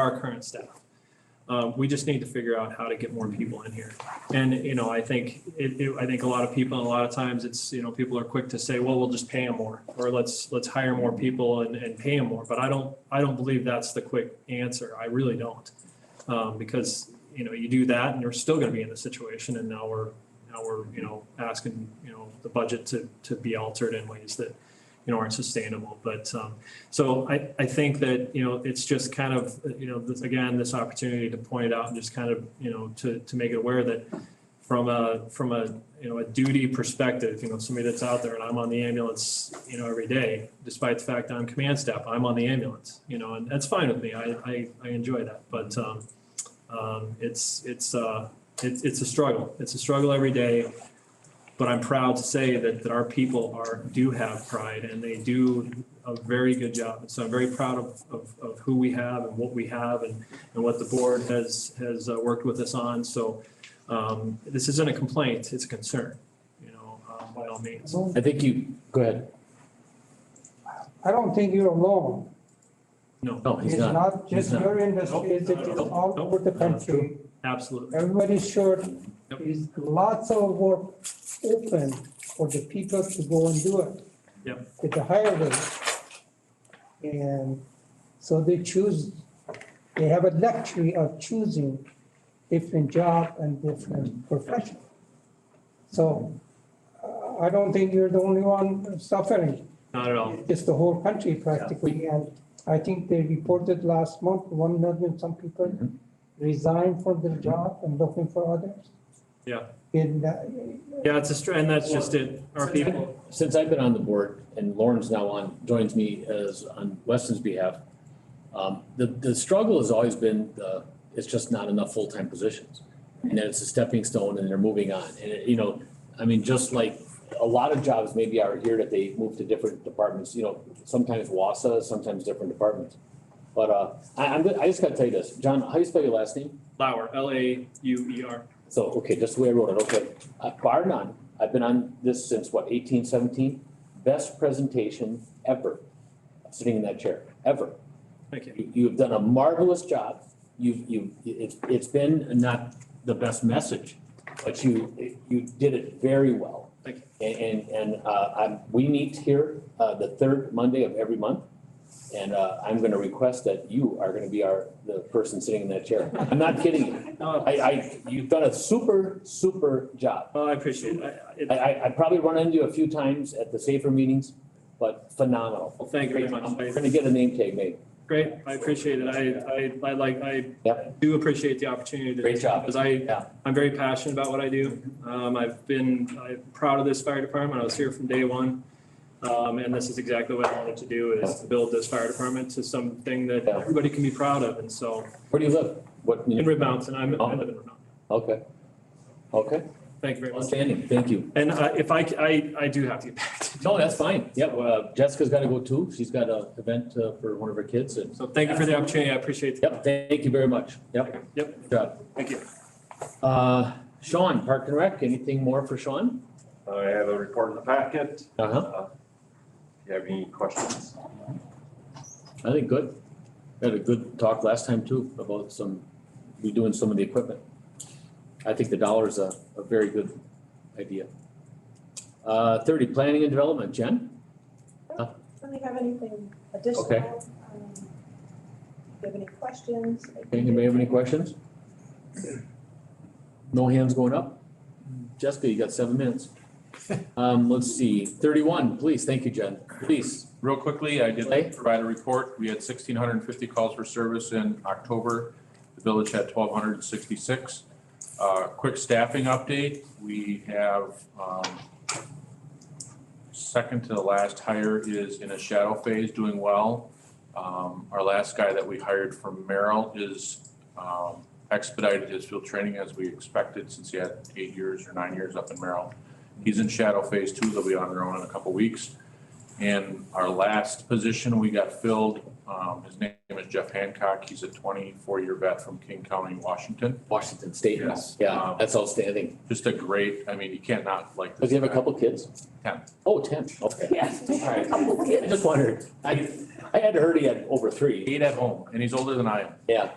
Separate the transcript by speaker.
Speaker 1: our current staff. Uh, we just need to figure out how to get more people in here. And, you know, I think, it, it, I think a lot of people, a lot of times it's, you know, people are quick to say, well, we'll just pay them more. Or let's, let's hire more people and, and pay them more. But I don't, I don't believe that's the quick answer. I really don't. Um, because, you know, you do that and you're still gonna be in this situation and now we're, now we're, you know, asking, you know, the budget to, to be altered in ways that, you know, aren't sustainable. But, um, so I, I think that, you know, it's just kind of, you know, this, again, this opportunity to point it out and just kind of, you know, to, to make it aware that from a, from a, you know, a duty perspective, you know, somebody that's out there and I'm on the ambulance, you know, every day, despite the fact I'm command staff, I'm on the ambulance, you know, and that's fine with me. I, I, I enjoy that, but, um, um, it's, it's, uh, it's, it's a struggle. It's a struggle every day. But I'm proud to say that, that our people are, do have pride and they do a very good job. And so I'm very proud of, of, of who we have and what we have and, and what the board has, has uh, worked with us on. So um, this isn't a complaint, it's a concern, you know, uh, by all means.
Speaker 2: Well,
Speaker 3: I think you, go ahead.
Speaker 2: I don't think you're alone.
Speaker 1: No,
Speaker 3: No,
Speaker 2: It's
Speaker 3: he's not.
Speaker 2: not just
Speaker 3: not.
Speaker 2: your industry, it's it is
Speaker 1: Nope,
Speaker 2: all
Speaker 1: nope,
Speaker 2: over the
Speaker 1: nope.
Speaker 2: country.
Speaker 1: absolutely.
Speaker 2: Everybody's short,
Speaker 1: Yep.
Speaker 2: is lots of work open for the people to go and do it.
Speaker 1: Yep.
Speaker 2: With the higher rate. And so they choose, they have a luxury of choosing different job and different profession. So uh, I don't think you're the only one suffering.
Speaker 1: Not at all.
Speaker 2: It's the whole country practically, and I think they reported last month, one million, some people
Speaker 1: Mm-hmm.
Speaker 3: Mhm.
Speaker 2: resigned from their job and looking for others.
Speaker 1: Yeah.
Speaker 2: In, uh,
Speaker 1: Yeah, it's a, str- and that's just it. Our people,
Speaker 3: Since I've been on the board and Lauren's now on, joins me as on Weston's behalf, um, the, the struggle has always been, uh, it's just not enough full-time positions. And then it's a stepping stone and they're moving on. And, it- you know, I mean, just like a lot of jobs maybe are here that they move to different departments, you know, sometimes WASA, sometimes different departments. But, uh, I, I'm, I just gotta tell you this, John, how do you spell your last name?
Speaker 1: Lauer, L A U E R.
Speaker 3: So, okay, that's the way I wrote it, okay. Uh, Bar none, I've been on this since what, eighteen seventeen? Best presentation ever, sitting in that chair, ever.
Speaker 1: Thank you.
Speaker 3: You, you've done a marvelous job. You've, you, it's, it's been not the best message, but you, you did it very well.
Speaker 1: Thank you.
Speaker 3: And, and, and, uh, I'm, we meet here, uh, the third Monday of every month. And, uh, I'm gonna request that you are gonna be our, the person sitting in that chair. I'm not kidding you.
Speaker 1: No,
Speaker 3: I, I, you've done a super, super job.
Speaker 1: well, I appreciate it. I- I-
Speaker 3: I,
Speaker 1: it.
Speaker 3: I, I probably run into you a few times at the safer meetings, but phenomenal.
Speaker 1: Well, thank you very much.
Speaker 3: I'm
Speaker 1: I-
Speaker 3: gonna get a name tag made.
Speaker 1: Great, I appreciate it. I, I, I like, I do appreciate the opportunity. to-
Speaker 3: Great job.
Speaker 1: Because I,
Speaker 3: Yeah.
Speaker 1: I'm very passionate about what I do. Um, I've been, I'm proud of this fire department. I was here from day one. Um, and this is exactly what I wanted to do is to build this fire department to something that
Speaker 3: Yeah.
Speaker 1: everybody can be proud of. And so
Speaker 3: Where do you live? What,
Speaker 1: in
Speaker 3: muni-
Speaker 1: Rib Mountain, I'm,
Speaker 3: Uh-huh.
Speaker 1: I live in Rib Mountain.
Speaker 3: okay. Okay,
Speaker 1: Thank you very much.
Speaker 3: outstanding, thank you.
Speaker 1: And I, if I, c- I, I do have to get back to
Speaker 3: No, that's fine. Yep, uh, Jessica's gotta go too. She's got a event uh, for one of her kids and,
Speaker 1: So thank you for the opportunity. I appreciate it.
Speaker 3: yep, thank you very much. Yep,
Speaker 1: Yep,
Speaker 3: good job.
Speaker 1: thank you.
Speaker 3: Uh, Sean, Park and Rec, anything more for Sean?
Speaker 4: I have a report in the packet.
Speaker 3: Uh-huh,
Speaker 4: Uh, If you have any questions?
Speaker 3: I think good. We Had a good talk last time too about some, redoing some of the equipment. I think the dollar's a, a very good idea. Uh, thirty, planning and development, Jen?
Speaker 5: Don't really have anything additional.
Speaker 3: Okay.
Speaker 5: Um, Do you have any questions?
Speaker 3: Anybody have any questions? No hands going up? Jessica, you got seven minutes. Um, let's see, thirty-one, please, thank you, Jen, please.
Speaker 6: Real quickly, I
Speaker 3: Okay.
Speaker 6: did provide a report. We had sixteen hundred and fifty calls for service in October. The village had twelve hundred and sixty-six. Uh, quick staffing update, we have, um, second to the last hire is in a shadow phase, doing well. Um, our last guy that we hired from Merrill is, um, expedited his field training as we expected since he had eight years or nine years up in Merrill. He's in shadow phase two. They'll be on their own in a couple weeks. And our last position we got filled, um, his name is Jeff Hancock. He's a twenty-four year vet from King County, Washington.
Speaker 3: Washington State,
Speaker 6: Yes.
Speaker 3: yeah, that's outstanding.
Speaker 6: Just a great, I mean, you can't not like this.
Speaker 3: Does he have a
Speaker 6: guy.
Speaker 3: couple kids?
Speaker 6: Ten.
Speaker 3: Oh, ten, okay.
Speaker 7: Yes.
Speaker 3: All right. I just wondered. I, I had heard he had over three.
Speaker 6: Eight at home, and he's older than I am.
Speaker 3: Yeah.